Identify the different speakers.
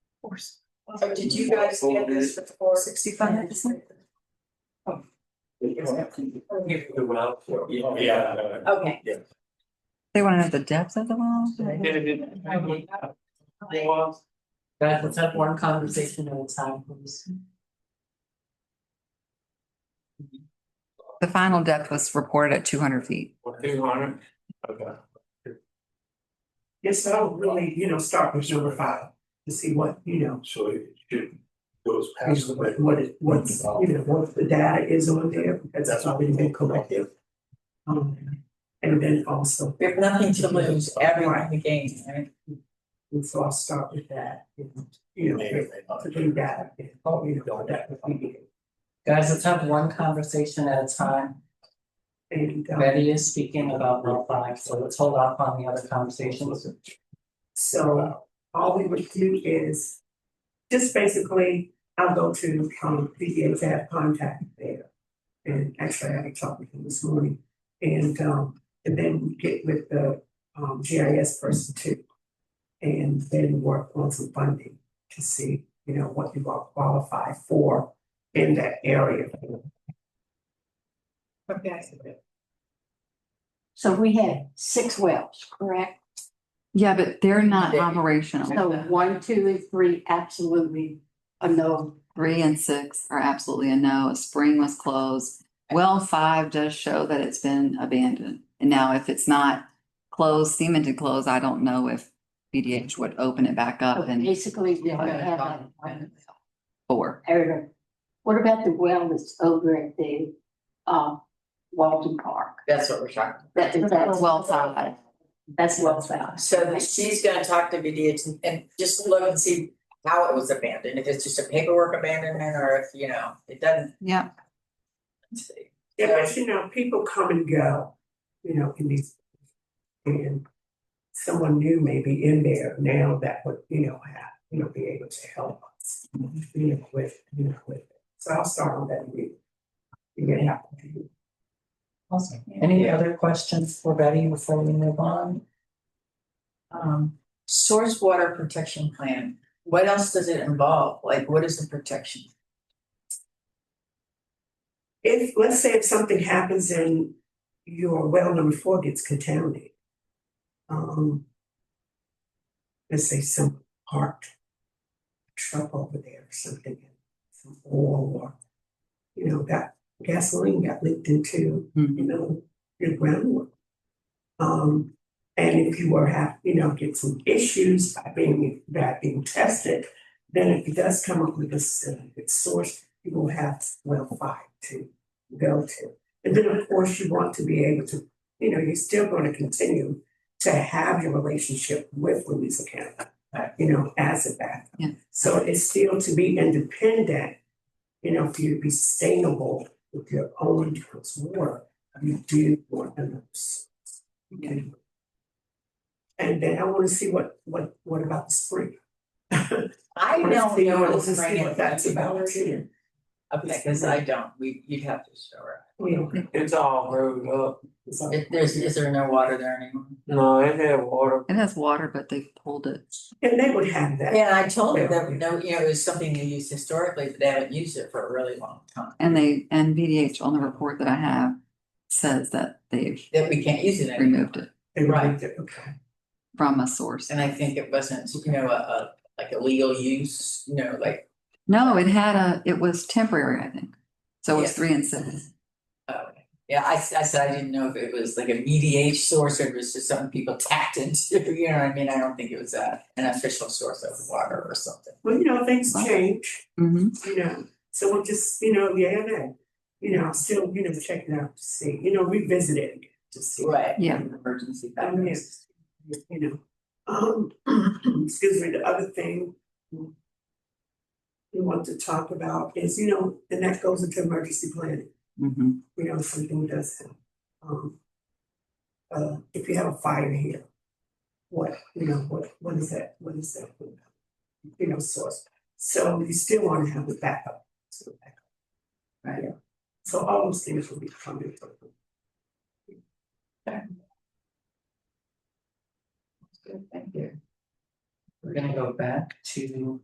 Speaker 1: course.
Speaker 2: So did you guys get this before?
Speaker 1: Sixty-five percent.
Speaker 3: Yeah.
Speaker 2: Okay.
Speaker 1: They want to know the depth of the well?
Speaker 4: Guys, let's have one conversation at a time, please.
Speaker 1: The final depth was reported at two hundred feet.
Speaker 3: Two hundred. Okay.
Speaker 5: Yes, I'll really, you know, start with number five to see what, you know,
Speaker 3: So it should goes past the.
Speaker 5: what, what it, what's, you know, what the data is on there, because that's already been collected. Um, and then also,
Speaker 4: We have nothing to lose, everything to gain, right?
Speaker 5: and so I'll start with that, you know, you know, with the big data. and, you know, that would be it.
Speaker 4: Guys, let's have one conversation at a time.
Speaker 5: And, um,
Speaker 4: Betty is speaking about Lot Five, so let's hold off on the other conversations.
Speaker 5: so all we would do is just basically, I'll go to, um, the exact contact there. And actually, I had talked with him this morning, and, um, and then get with the, um, G I S person too. And then work on some funding to see, you know, what you are qualified for in that area.
Speaker 2: Okay.
Speaker 6: So we had six wells, correct?
Speaker 1: Yeah, but they're not
Speaker 4: They-
Speaker 1: operational.
Speaker 6: So one, two, and three absolutely a no.
Speaker 1: Three and six are absolutely a no. Spring was closed. Well, five does show that it's been abandoned. And now if it's not closed, cemented closed, I don't know if BDH would open it back
Speaker 6: So
Speaker 1: up in
Speaker 6: Basically, they're gonna have that one
Speaker 1: four.
Speaker 6: area. What about the well that's over at the, uh, Walton Park?
Speaker 4: That's what we're talking.
Speaker 6: That, that's.
Speaker 1: Well, five.
Speaker 6: That's well found.
Speaker 2: So she's gonna talk to VDH and- and just look and see how it was abandoned, if it's just a paperwork abandonment or if, you know, it doesn't.
Speaker 1: Yeah,
Speaker 5: Yeah, but you know, people come and go, you know, in these. And someone new may be in there now that would, you know, have, you know, be able to help us. You know, with, you know, with, so I'll start on that week. You get help.
Speaker 4: Awesome. Any other questions for Betty before we move on?
Speaker 2: Um, source water protection plan, what else does it involve? Like, what is the protection?
Speaker 5: If, let's say if something happens and your well number four gets contaminated. Um. Let's say some heart. Truck over there or something, some oil or, you know, got gasoline got leaked into, you
Speaker 1: Mhm.
Speaker 5: know, your groundwork. Um, and if you were have, you know, get some issues by being, by being tested, then if it does come up with a s- a good source, you will have well five to go to. And then, of course, you want to be able to, you know, you're still gonna continue to have your relationship with Louisa County, uh, you know, as a backup.
Speaker 1: Yeah.
Speaker 5: So it's still to be independent, you know, for you to be sustainable with your own house water, you do want another source. Okay. And then I wanna see what, what, what about the spring?
Speaker 2: I
Speaker 5: Let's
Speaker 2: don't
Speaker 5: see
Speaker 2: know what
Speaker 5: what- let's
Speaker 2: the
Speaker 5: see
Speaker 2: spring
Speaker 5: what
Speaker 2: is.
Speaker 5: That's about too.
Speaker 2: Okay, cause I don't, we, you'd have to show her.
Speaker 5: You know,
Speaker 3: It's all grown up.
Speaker 5: it's all-
Speaker 2: If there's, is there no water there anymore?
Speaker 3: No, it had water.
Speaker 1: it has water, but they've pulled it.
Speaker 5: And they would have that,
Speaker 2: Yeah, and I told her that, no, you know, it was something they used historically, but they haven't used it for a really long time,
Speaker 1: And they, and BDH on the report that I have says that they've
Speaker 2: that we can't use it anymore.
Speaker 1: removed it
Speaker 5: they would
Speaker 2: Right.
Speaker 5: have that, okay.
Speaker 1: from a source.
Speaker 2: And I think it wasn't, you know, a, a, like a legal use, you know, like,
Speaker 1: No, it had a, it was temporary, I think. So it was
Speaker 2: Yeah.
Speaker 1: three and six.
Speaker 2: uh, yeah, I, s- I said I didn't know if it was like a BDH source or it was just something people tapped into, you know what I mean? I don't think it was a, an official source of water or something.
Speaker 5: Well, you know, things change.
Speaker 1: Mm-hmm.
Speaker 5: you know, so we'll just, you know, yeah, that, you know, still, you know, check it out to see, you know, revisit it again to see.
Speaker 2: Right.
Speaker 1: Yeah.
Speaker 2: Emergency
Speaker 5: Um,
Speaker 2: factors.
Speaker 5: yes, you know, um, excuse me, the other thing we want to talk about is, you know, and that goes into emergency planning,
Speaker 1: Mm-hmm.
Speaker 5: you know, if something does happen. Um, uh, if you have a fire here, what, you know, what, what is that, what is that? You know, source, so you still wanna have the backup, so the backup. Right, yeah. so all those things will be coming from.
Speaker 2: Good, thank you.
Speaker 4: We're gonna go back to